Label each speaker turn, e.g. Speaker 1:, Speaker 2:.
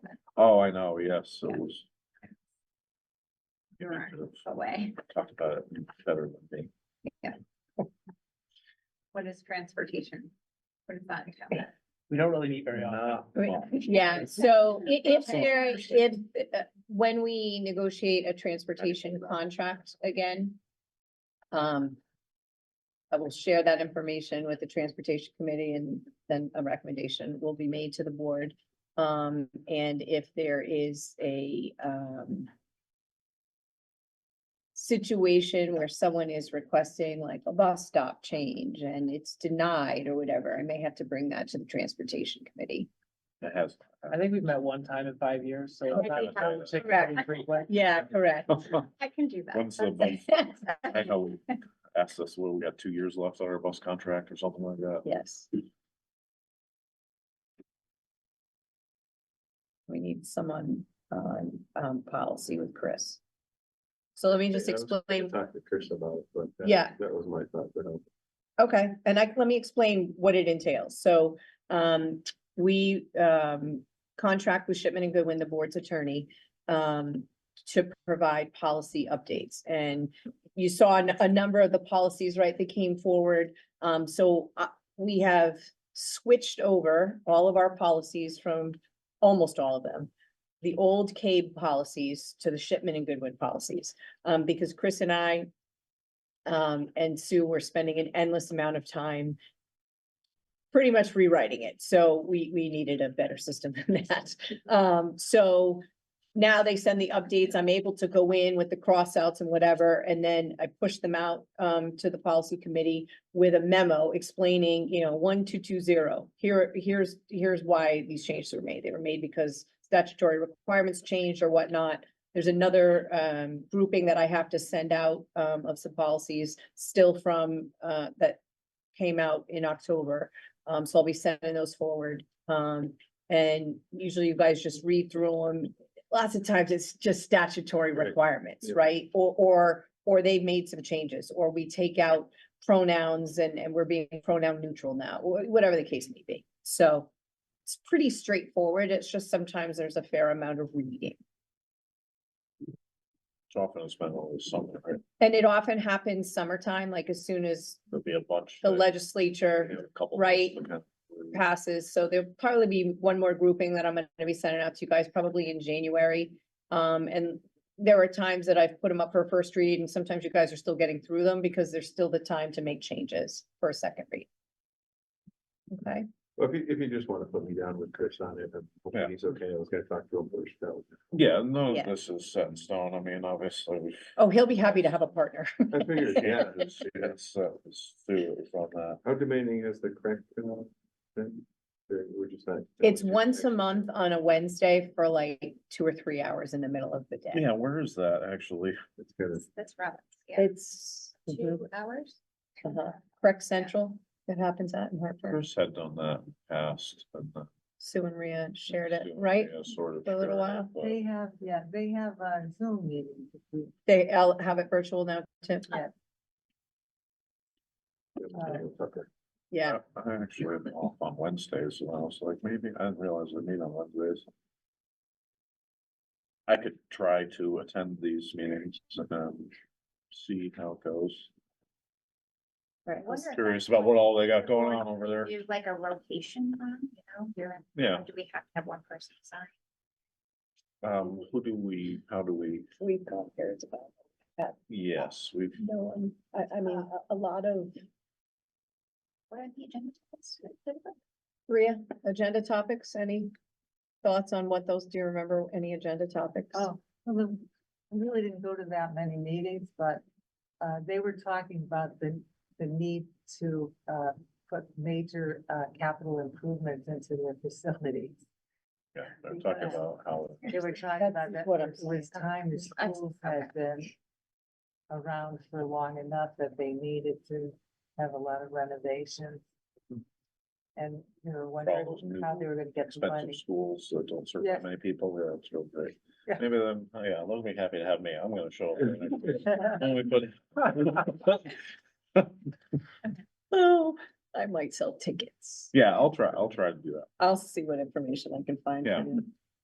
Speaker 1: Oh, I know, yes, it was.
Speaker 2: You're away.
Speaker 1: Talked about it better than me.
Speaker 2: What is transportation? What is that? entail?
Speaker 3: We don't really meet very often.
Speaker 1: Well,
Speaker 4: Yeah, so i- if there, if, uh, when we negotiate a transportation contract again. Um. I will share that information with the transportation committee and then a recommendation will be made to the board. Um, and if there is a, um. Situation where someone is requesting like a bus stop change and it's denied or whatever, I may have to bring that to the transportation committee.
Speaker 1: It has.
Speaker 3: I think we've met one time in five years, so. it's not- not particularly frequent.
Speaker 4: Yeah, correct.
Speaker 2: I can do that.
Speaker 1: When's the bus? I know we asked us, well, we got two years left on our bus contract or something like that.
Speaker 4: Yes. We need someone on, um, policy with Chris. So let me just
Speaker 5: Yeah, I was gonna
Speaker 4: explain,
Speaker 5: Talk to Chris about it, but. that-
Speaker 4: Yeah.
Speaker 5: That was my thought, but. um,
Speaker 4: okay, and I, let me explain what it entails. So, um, we, um, contract with Shipman and Goodwin, the board's attorney, um, to provide policy updates. And you saw a, a number of the policies, right, that came forward. Um, so, uh, we have switched over all of our policies from almost all of them. The old CABE policies to the Shipman and Goodwin policies, um, because Chris and I um, and Sue were spending an endless amount of time pretty much rewriting it. So we, we needed a better system than that. Um, so now they send the updates. I'm able to go in with the crossouts and whatever, and then I push them out um to the policy committee with a memo explaining, you know, one, two, two, zero. Here, here's, here's why these changes were made. They were made because statutory requirements changed or whatnot. There's another um grouping that I have to send out um of some policies still from uh that came out in October. Um, so I'll be sending those forward. Um, and usually you guys just read through them lots of times it's just statutory
Speaker 5: Right.
Speaker 4: requirements,
Speaker 5: Yeah.
Speaker 4: right? Or, or, or they've made some changes, or we take out pronouns and, and we're being pronoun neutral now, wh- whatever the case may be. So it's pretty straightforward. It's just sometimes there's a fair amount of reading.
Speaker 1: It's often it's been always something, right?
Speaker 4: And it often happens summertime, like as soon as
Speaker 1: There'll be a bunch.
Speaker 4: the
Speaker 1: that,
Speaker 4: legislature
Speaker 1: you know, a couple
Speaker 4: right.
Speaker 1: months that kind of-
Speaker 4: passes, so there'll probably be one more grouping that I'm gonna be sending out to you guys probably in January. Um, and there are times that I've put them up for first read and sometimes you guys are still getting through them because there's still the time to make changes for a second read. Okay,
Speaker 5: Well, if you, if you just wanna put me down with Chris on it, I'm
Speaker 1: Yeah.
Speaker 5: hoping he's okay, I was gonna talk to him first, though.
Speaker 1: Yeah, no,
Speaker 4: Yeah.
Speaker 1: this is set in stone. I mean, obviously, we
Speaker 4: oh, he'll be happy to have a partner.
Speaker 5: I figured, yeah,
Speaker 1: Yeah, it's, it's, uh, it's through from that.
Speaker 5: how demanding is the correct, uh, thing? Or We're just not.
Speaker 4: It's once a month on a Wednesday for like two or three hours in the middle of the day.
Speaker 1: Yeah, where is that actually?
Speaker 5: It's kind of,
Speaker 2: That's Roberts, yeah,
Speaker 4: It's
Speaker 2: two hours.
Speaker 4: Uh-huh. Correct Central, that happens at in Hartford,
Speaker 1: Chris had done that in the past. and, uh,
Speaker 4: Sue and Rhea shared it,
Speaker 1: yeah,
Speaker 4: right?
Speaker 1: yeah, Sort of.
Speaker 4: For a little
Speaker 1: shared it,
Speaker 4: while.
Speaker 1: but-
Speaker 6: They have, yeah, they have uh Zoom meetings. if we-
Speaker 4: They all have it virtual now too. Uh, Yeah,
Speaker 1: I I actually am off on Wednesdays, and I was like, maybe, I didn't realize we meet on Wednesdays. I could try to attend these meetings and um, see how it goes.
Speaker 4: right.
Speaker 2: I wonder if
Speaker 1: Curious
Speaker 2: that's
Speaker 1: about what
Speaker 2: like-
Speaker 1: all they got going on over there.
Speaker 2: Use like a rotation on, you know, you're, in-
Speaker 1: Yeah,
Speaker 2: do we have to have one person sign?
Speaker 1: um, who do we, how do we,
Speaker 4: We've got periods about,
Speaker 1: yes, we've,
Speaker 4: no, um, I, I mean,
Speaker 2: Uh,
Speaker 4: a, a lot of.
Speaker 2: What are the agenda? topics?
Speaker 4: Rhea, agenda topics, any thoughts on what those, do you remember any agenda topics?
Speaker 6: Oh, well, the- I really didn't go to that many meetings, but uh they were talking about the the need to uh put major uh capital improvements into their facilities.
Speaker 1: yeah, they're talking about how,
Speaker 6: They were talking about
Speaker 4: That's
Speaker 6: that
Speaker 4: what I'm
Speaker 6: it was
Speaker 4: saying.
Speaker 6: time the
Speaker 2: I-
Speaker 6: schools had been around for long enough that they needed to have a lot of renovations. And they were wondering
Speaker 1: those new
Speaker 6: how they were gonna get the
Speaker 1: expensive
Speaker 6: money.
Speaker 1: schools that don't serve that
Speaker 6: Yes.
Speaker 1: many people, yeah, it's real great.
Speaker 6: Yeah.
Speaker 1: Maybe them, oh, yeah, they'll be happy to have me, I'm gonna show up. there next week. And we put-
Speaker 4: Oh, I might sell tickets.
Speaker 1: Yeah, I'll try, I'll try to do that.
Speaker 4: I'll see what information I can find. for
Speaker 1: Yeah.
Speaker 4: you.